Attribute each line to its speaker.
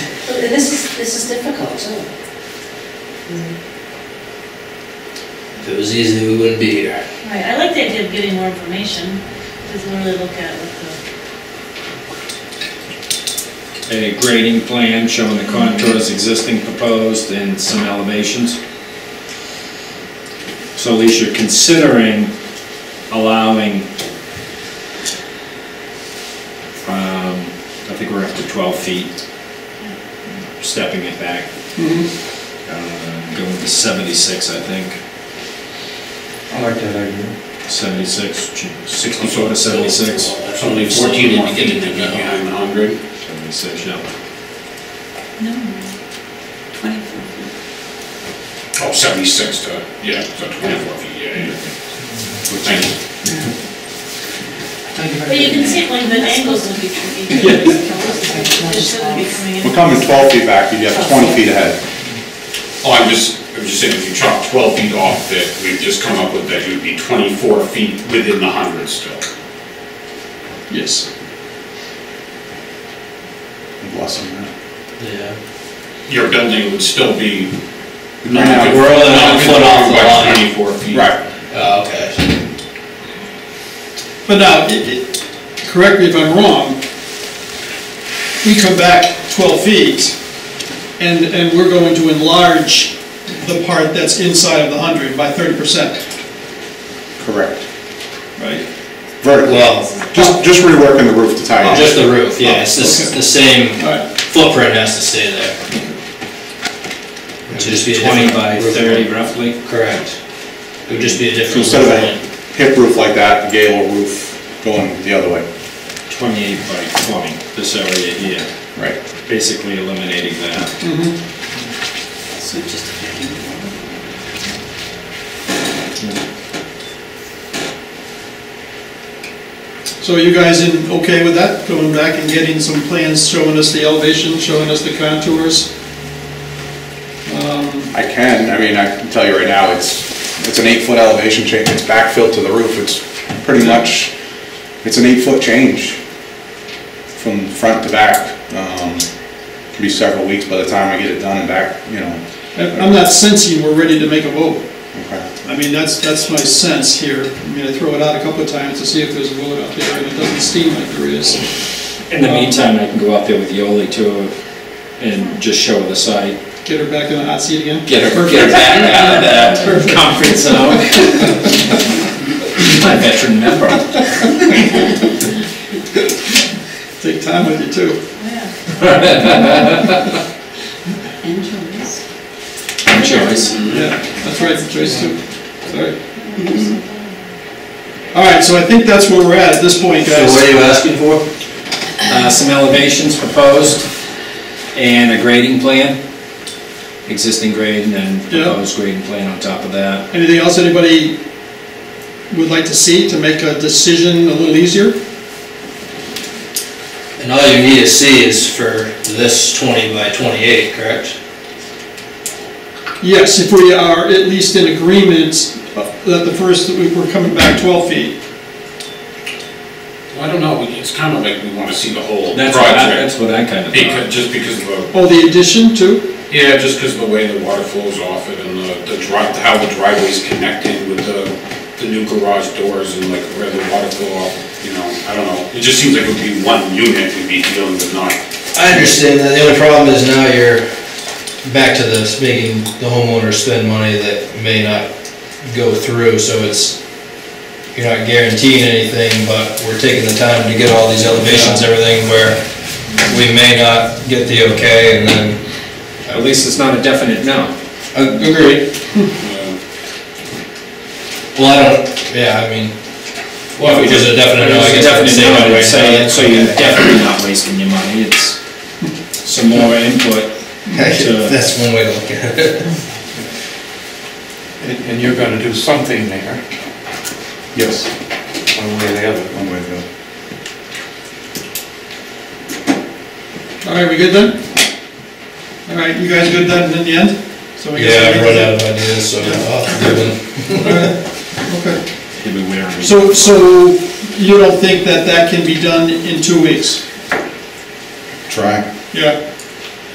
Speaker 1: But this is, this is difficult, isn't it?
Speaker 2: If it was easy, we wouldn't be here.
Speaker 3: Right, I like the idea of getting more information, just really look at what
Speaker 4: A grading plan showing the contours existing proposed and some elevations. So at least you're considering allowing, um, I think we're up to 12 feet, stepping it back. Uh, Going to 76, I think,
Speaker 5: I like that idea.
Speaker 4: 76, 64 to 76.
Speaker 6: That's only fourteen more feet than you have a hundred.
Speaker 4: 76, yeah.
Speaker 3: the. No, twenty-four feet.
Speaker 6: Oh, seventy-six to, yeah, so twenty-four feet, yeah, yeah. Thank you.
Speaker 3: But you can see, like, the angles will be tricky. It's still be coming in.
Speaker 7: We're coming 12 feet back, you have 20 feet ahead.
Speaker 6: Oh, I'm just, I'm just saying, if you chop twelve feet off that we've just come up with, that you'd be twenty-four feet within the hundred still.
Speaker 4: Yes.
Speaker 7: Bless them, man.
Speaker 2: Yeah.
Speaker 6: Your building would still be.
Speaker 7: Right now,
Speaker 2: we're only one foot off the
Speaker 6: non-conforming by
Speaker 2: line.
Speaker 6: Twenty-four feet.
Speaker 7: Right,
Speaker 2: Oh, okay.
Speaker 8: But now, it- it- correct me if I'm wrong, we come back 12 feet, and, and we're going to enlarge the part that's inside of the 100 by 30%,
Speaker 7: correct.
Speaker 8: right?
Speaker 7: Vertical.
Speaker 2: Well-
Speaker 7: Just, just reworking the roof to tie it
Speaker 2: Oh, Just the roof, yeah, it's the, the same
Speaker 8: Alright.
Speaker 2: footprint has to stay there. Which would just be a
Speaker 4: 20
Speaker 2: different
Speaker 4: by
Speaker 2: roof
Speaker 4: 30
Speaker 2: line.
Speaker 4: roughly.
Speaker 2: Correct. It would just be a
Speaker 7: in.
Speaker 2: different.
Speaker 7: Instead
Speaker 2: roof
Speaker 7: of a
Speaker 2: line.
Speaker 7: hip roof like that, a gable roof going the other way.
Speaker 4: 28 by 20, this area here,
Speaker 7: Right.
Speaker 4: basically eliminating that.
Speaker 1: So just a bit more.
Speaker 8: So are you guys in, okay with that, going back and getting some plans showing us the elevation, showing us the contours? Um,
Speaker 7: I can, I mean, I can tell you right now, it's, it's an eight-foot elevation change, it's backfilled to the roof, it's pretty much, it's an eight-foot change from front to back. Um, Could be several weeks by the time I get it done and back, you know.
Speaker 8: I- I'm not sensing we're ready to make a vote.
Speaker 7: Okay.
Speaker 8: I mean, that's, that's my sense here. I mean, I throw it out a couple of times to see if there's a vote out there, and it doesn't seem like there is.
Speaker 4: In the meantime, I can go out there with Yoli too and just show the site.
Speaker 8: Get her back in the hot seat again?
Speaker 2: Get her, get her back out of that
Speaker 8: Perfect.
Speaker 2: comfort zone.
Speaker 4: My veteran member.
Speaker 8: Take time with you too.
Speaker 3: Yeah.
Speaker 1: And Joyce?
Speaker 4: Choice.
Speaker 8: Yeah, that's right, Joyce too. Sorry. All right, so I think that's where we're at at this point,
Speaker 4: So what
Speaker 8: guys.
Speaker 4: are you asking for? Uh, some elevations proposed and a grading plan. Existing grade and then
Speaker 8: Yeah.
Speaker 4: proposed grading plan on top of that.
Speaker 8: Anything else anybody would like to see to make a decision a little easier?
Speaker 2: And all you need to see is for this twenty by twenty-eight, correct?
Speaker 8: Yes, if we are at least in agreement that the first, that we- we're coming back 12 feet.
Speaker 6: Well, I don't know, it's kind of like we wanna see the whole
Speaker 4: That's what I,
Speaker 6: project.
Speaker 4: that's what I kind of thought.
Speaker 6: Because, just because of the
Speaker 8: Oh, the addition too?
Speaker 6: Yeah, just because the way the water flows off it and the, the dri- how the driveway's connected with the, the new garage doors and like where the water flow off, you know, I don't know. It just seems like it would be one unit we'd be dealing with, not,
Speaker 2: I understand that, the only problem is now you're back to this, making the homeowner spend money that may not go through, so it's, you're not guaranteeing anything, but we're taking the time to get all these elevations, everything where we may not get the okay, and then,
Speaker 4: At least it's not a definite no.
Speaker 2: agreed.
Speaker 6: uh,
Speaker 2: Well, I don't, yeah, I mean, well, if it was a definite no, I
Speaker 4: It's
Speaker 2: guess I would
Speaker 4: definitely
Speaker 2: say
Speaker 4: no,
Speaker 2: no
Speaker 4: I would
Speaker 2: right now,
Speaker 4: say,
Speaker 2: that's
Speaker 4: so you're
Speaker 2: okay.
Speaker 4: definitely not wasting your money, it's some more input. to-
Speaker 2: That's one way to look at it.
Speaker 5: And and you're gonna do something there,
Speaker 7: Yes.
Speaker 5: one way or the other.
Speaker 7: One way to go.
Speaker 8: All right, we good then? All right, you guys good then in the end? So we
Speaker 2: Yeah,
Speaker 8: guess
Speaker 2: I've
Speaker 8: we-
Speaker 2: run out of ideas, so oh, I'll have to do one.
Speaker 8: Okay.
Speaker 4: You'd be wary.
Speaker 8: So, so you don't think that that can be done in two weeks?
Speaker 7: Try.
Speaker 8: Yeah.